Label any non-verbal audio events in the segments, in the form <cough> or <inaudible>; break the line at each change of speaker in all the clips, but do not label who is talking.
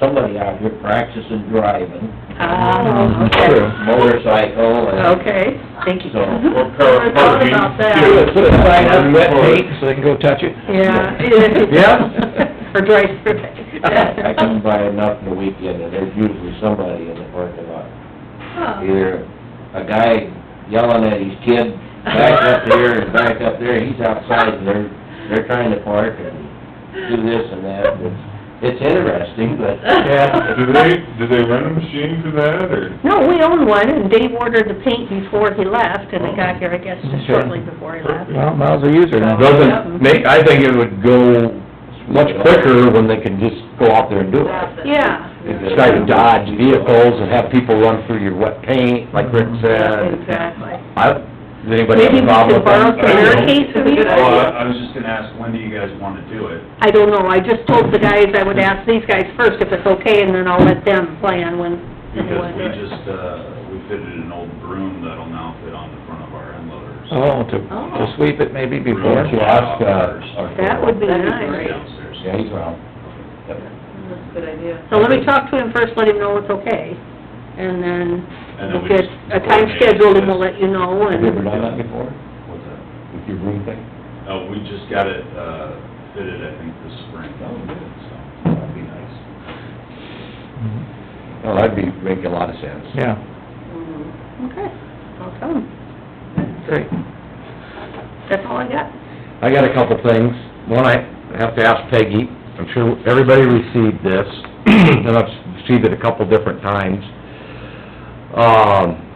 somebody out here practicing driving,
Ah,
True.
okay,
motorcycle and,
okay.
Thank you.
So,
<laughs>
Ken.
I thought about that.
Put a sign on wet
Or-
paint so they can go touch it.
Yeah.
Yeah.
<laughs> For dry spray.
<laughs> I come by enough in the weekend and there's usually somebody in the parking lot. Either a guy yelling at his kid, back up here and back up there, he's outside and they're, they're trying to park and do this and that. It's, it's interesting, but
Yeah.
<laughs> Do they, do they rent a machine for that, or?
No, we own one, and Dave ordered the paint before he left, and it got here, I guess, just
Okay.
shortly before he left.
Well, miles a user now.
Doesn't make, I think it would go much quicker when they could just go out there and do it.
Yeah.
Try to dodge vehicles and have people run through your wet paint, like Rick said.
Exactly.
I, does anybody have
Maybe we
a
could
problem with
borrow some
that?
barricades if we
Well, I I was just gonna ask, when do you guys wanna do it?
I don't know, I just told the guys I would ask these guys first if it's okay, and then I'll let them plan when, when they
Because
want
we
to do it.
just, uh, we fitted an old broom that'll now fit on the front of our end loaders.
Oh, to, to sweep it maybe before.
Why don't you ask, uh, our-
That would be
That'd be
nice.
great.
Downstairs.
Yeah, he's around.
That's a good idea.
So let me talk to him first, let him know it's okay, and then
And then
we'll
we
get
just
a time
coordinate
scheduled and
this.
we'll let you know,
Have you ever
and,
done that before,
What's that?
with your room thing?
Oh, we just got it, uh, fitted, I think, this spring.
Oh, good.
So, that'd be nice.
No, that'd be, make a lot of sense.
Yeah,
okay, I'll tell him,
great.
that's all I got.
I got a couple things. One, I have to ask Peggy, I'm sure everybody received this, <clears throat> and I've received it a couple different times. Um,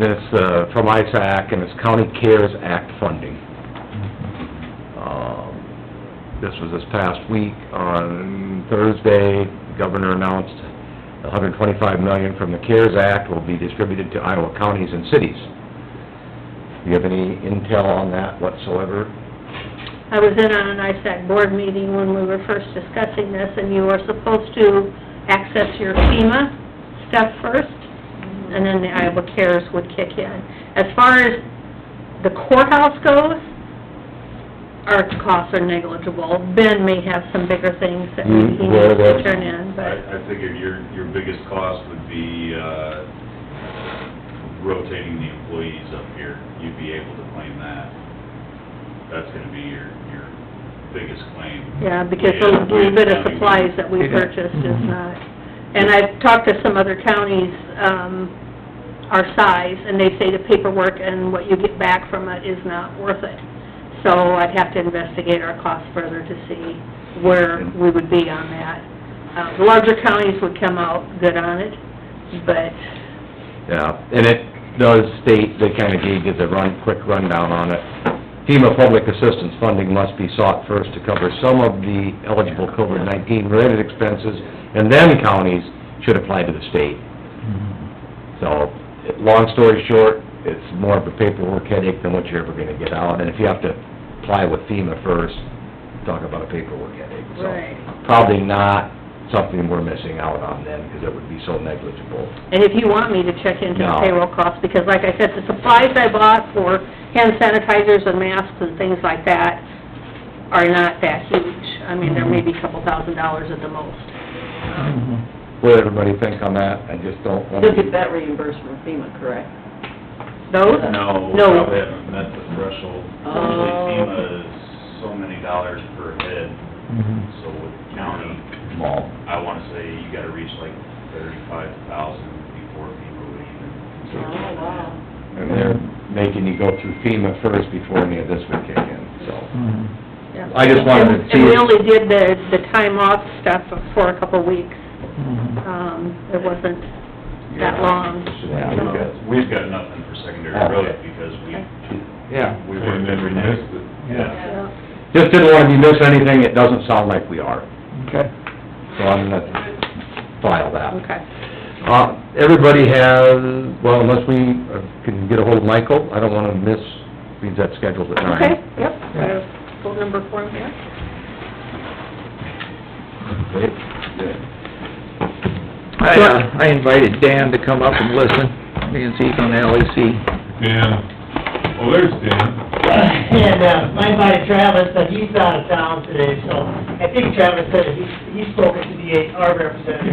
it's, uh, from ISAC, and it's County Cares Act funding.
Mm-hmm.
Um, This was this past week, on Thursday, the Governor announced hundred and twenty-five million from the CARES Act will be distributed to Iowa counties and cities. Do you have any intel on that whatsoever?
I was in on an ISAC board meeting when we were first discussing this, and you are supposed to access your FEMA stuff first, and then the Iowa CARES would kick in. As far as the courthouse goes, our costs are negligible. Ben may have some bigger things that he
Mm,
needs
well,
to
that's-
turn in, but,
I, I figured your, your biggest cost would be, uh, rotating the employees up here. You'd be able to claim that. That's gonna be your, your biggest claim.
yeah, because the
Yeah,
little bit of
we-
supplies that we
Yeah.
purchased is not. And I've talked to some other counties, um, our size, and they say the paperwork and what you get back from it is not worth it. So I'd have to investigate our costs further to see where we would be on that. Uh, the larger counties would come out good on it, but,
Yeah, and it does state, they kinda gave you the run, quick rundown on it. FEMA public assistance funding must be sought first to cover some of the eligible COVID-19 related expenses, and then counties should apply to the state. So, it- long story short, it's more of a paperwork headache than what you're ever gonna get out, and if you have to apply with FEMA first, talk about a paperwork headache, so.
right.
Probably not something we're missing out on then, because it would be so negligible.
And if you want me to check into the
No.
payroll costs, because like I said, the supplies I bought for hand sanitizers and masks and things like that are not that huge. I mean, there may be a couple thousand dollars at the most. Um,
what did everybody think on that, I just don't want
You'll get
to...
that reimbursed from FEMA, correct?
Those?
No,
No.
probably haven't met the threshold. Usually
Oh.
FEMA is so many dollars per head,
Mm-hmm.
so with county,
Small.
I wanna say you gotta reach like thirty-five thousand before FEMA would even consider
Oh,
that.
wow.
And they're making you go through FEMA first before any of this would kick in, so...
Mm-hmm.
Yeah.
I just wanted to
And-
see
And we
it.
only did the, the time off stuff for a couple weeks.
Mm-hmm.
Um, it wasn't that long. so-
Yeah, we've got-
We've got nothing for secondary
Okay.
roads because we,
Yeah.
we worked every night.
Missed it.
Yeah.
Yeah.
Just didn't want to miss anything, it doesn't sound like we are,
Okay.
so I'm gonna file that.
Okay.
Uh, everybody has, well, unless we uh, can get ahold of Michael, I don't want to miss, because that schedule's at nine.
Okay, yep, I have phone number for him here.
Great, good.
I, uh, I invited Dan to come up and listen, because he's on LEC.
Dan, oh, there's Dan.
And, uh, my buddy Travis, but he's out of town today, so I think Travis said he, he spoke to the eight, our representative